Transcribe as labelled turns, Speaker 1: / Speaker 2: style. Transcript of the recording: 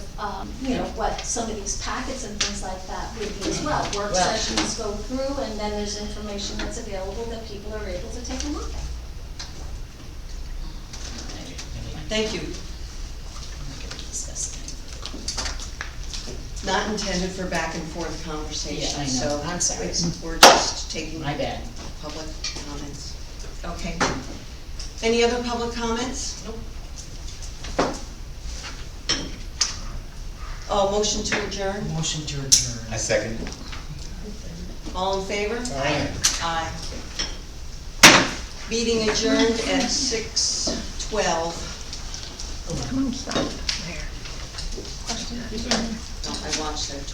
Speaker 1: um, you know, what some of these packets and things like that would be as well. Work
Speaker 2: Well-
Speaker 1: sessions go through, and then there's information that's available that people are able to take a look at.
Speaker 2: Thank you. It's Not intended for back and forth
Speaker 3: Yeah, I
Speaker 2: conversation,
Speaker 3: know.
Speaker 2: so.
Speaker 3: I'm sorry.
Speaker 2: it's- We're just taking
Speaker 3: My bad.
Speaker 2: public comments. Okay. Any other public comments?
Speaker 3: Nope.
Speaker 2: Oh, motion to adjourn,
Speaker 3: Motion to
Speaker 4: I
Speaker 3: adjourn.
Speaker 4: second.
Speaker 2: all in favor?
Speaker 4: Aye.
Speaker 2: Aye. Meeting adjourned at six twelve.
Speaker 3: Oh,
Speaker 5: Come on, stop there.
Speaker 2: I watched that